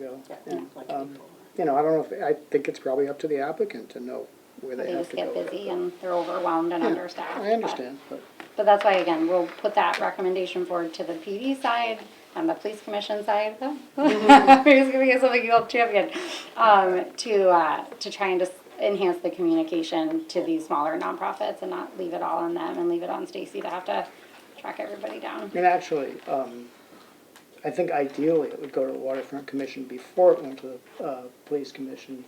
that Yeah, looked like um, before. You know, I don't know, if I think it's probably up to the applicant to know where They they have just to go. get busy and they're overwhelmed and Yeah, understaffed. I but- understand, but, But that's why, again, we'll put that recommendation forward to the PD side and the police commission side, though. Mm-hmm. It's gonna be something you'll champion, um, to, uh, to try and just enhance the communication to these smaller nonprofits and not leave it all on them and leave it on Stacy to have to track everybody down. and actually, um, I think ideally it would go to the waterfront commission before it went to the, uh, police commission.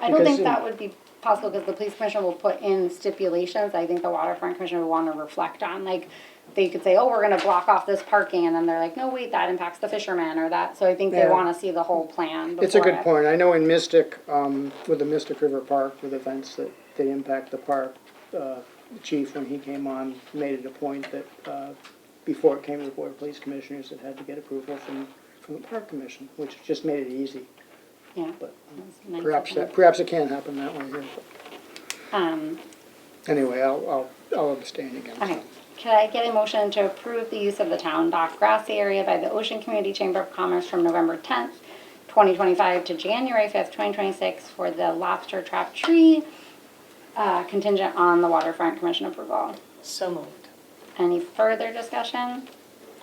I don't think Because- that would be possible because the police commission will put in stipulations. I think the waterfront commission would want to reflect on, like, they could say, oh, we're gonna block off this parking, and then they're like, no, wait, that impacts the fishermen or that, so I think they Yeah. want to see the whole plan It's a before good it- point. I know in Mystic, um, with the Mystic River Park, with events that, that impact the park, uh, the chief, when he came on, made it a point that, uh, before it came to the Board of Police Commissioners, it had to get approval from, from the Park Commission, which just made it easy, Yeah. but That's nice of perhaps them. that, perhaps it can happen that way here. Um, Anyway, I'll, I'll, I'll abstain again. so. okay, could I get a motion to approve the use of the town dock grassy area by the Ocean Community Chamber of Commerce from November tenth, twenty twenty-five to January fifth, twenty twenty-six for the lobster trap tree, uh, contingent on the waterfront commission approval? So moved. Any further discussion?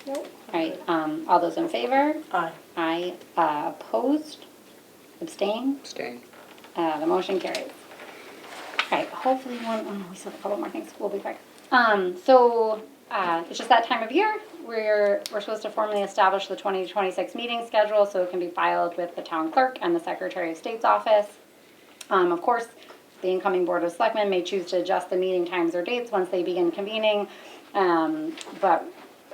Nope. All right, um, all those in favor? Aye. Aye, uh, opposed, abstained, Abstain. uh, the motion carries. All right, hopefully one, oh no, we still have a couple more things, we'll be quick. Um, so, uh, it's just that time of year, we're, we're supposed to formally establish the twenty twenty-six meeting schedule, so it can be filed with the town clerk and the Secretary of State's office. Um, of course, the incoming Board of Selectmen may choose to adjust the meeting times or dates once they begin convening. Um, but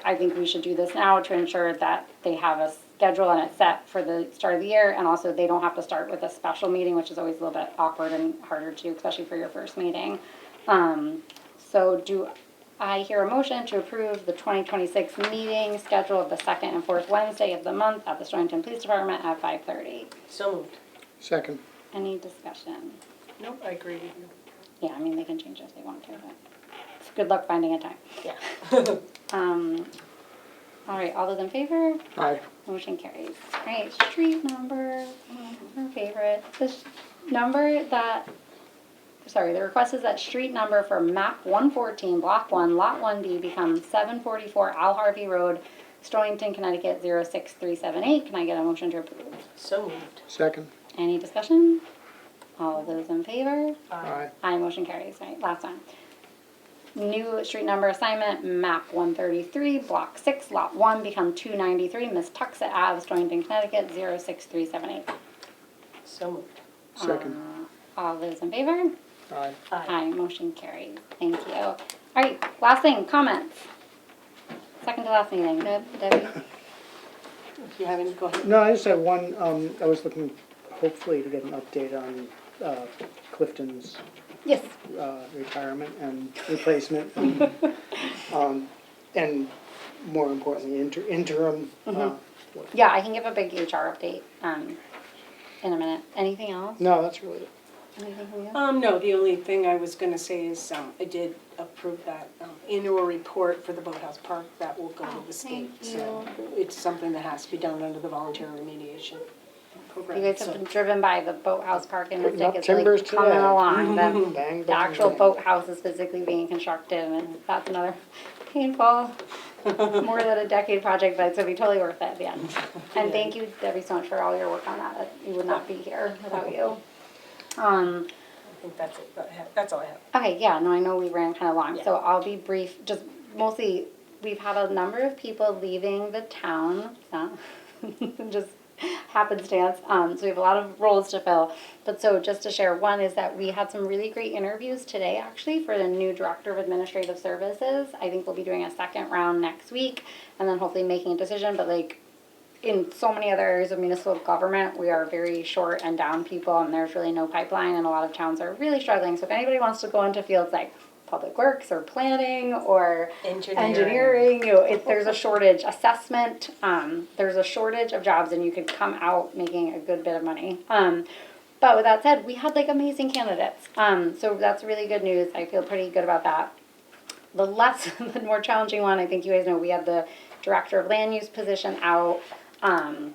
I think we should do this now to ensure that they have a schedule and it's set for the start of the year. And also, they don't have to start with a special meeting, which is always a little bit awkward and harder to, especially for your first meeting. Um, so do I hear a motion to approve the twenty twenty-six meeting schedule of the second and fourth Wednesday of the month at the Stonington Police Department at five thirty? So moved. Second. Any discussion? Nope, I agree with you. Yeah, I mean, they can change it if they want to, but it's good luck finding a time. Yeah. Um, all right, all those in favor? Aye. Motion carries. All right, street number, her favorite, this number that, sorry, the request is that street number for map one fourteen, block one, lot one B become seven forty-four Al Harvey Road, Stonington, Connecticut, 06378. Can I get a motion to approve? So moved. Second. Any discussion? All of those in favor? Aye. Aye, motion carries, right, last one. New street number assignment, map one thirty-three, block six, lot one, become two ninety-three, Miss Tuxet Ave, Stonington, Connecticut, 06378. So moved. Second. Uh, All those in favor? Aye. Aye. Aye, motion carries, thank you. All right, last thing, comments. Second to last meeting, Deb- Debbie? If you have any, go ahead. No, I just had one, um, I was looking hopefully to get an update on, uh, Clifton's Yes. uh, retirement and replacement. and, um, And more importantly, inter- interim. uh, what- Yeah, I can give a big HR update, um, in a minute. Anything else? No, that's really it. Anything from you? Um, no, the only thing I was gonna say is, um, I did approve that um, annual report for the Boathouse Park that will Oh, go to the state. thank So it's something that has to be done under the voluntary remediation program. You guys so- have been driven by the boathouse park and it's Putting up like it's timbers Mm-hmm. like coming today. along. The, Bang, the bang, actual bang. boathouse is physically being constructed and that's another painful, more than a decade project, but it's gonna be totally worth it at the end. And thank you Debbie so much for all your work on that. You would not be here without you. Um, I think that's it. That I have- That's all I have. Okay, yeah, no, I know we ran kind of long, so Yeah. I'll be brief, just mostly, we've had a number of people leaving the town, uh, just happenstance, um, so we have a lot of roles to fill. But so just to share, one is that we had some really great interviews today, actually, for the new Director of Administrative Services. I think we'll be doing a second round next week, and then hopefully making a decision, but like, in so many other areas of municipal government, we are very short and down people, and there's really no pipeline, and a lot of towns are really struggling. So if anybody wants to go into fields like public works or planning or Engineering. engineering, you know, if there's a shortage, assessment, um, there's a shortage of jobs, and you could come out making a good bit of money. Um, but with that said, we had like amazing candidates, um, so that's really good news. I feel pretty good about that the less the more challenging one i think you guys know we had the director of land use position out um,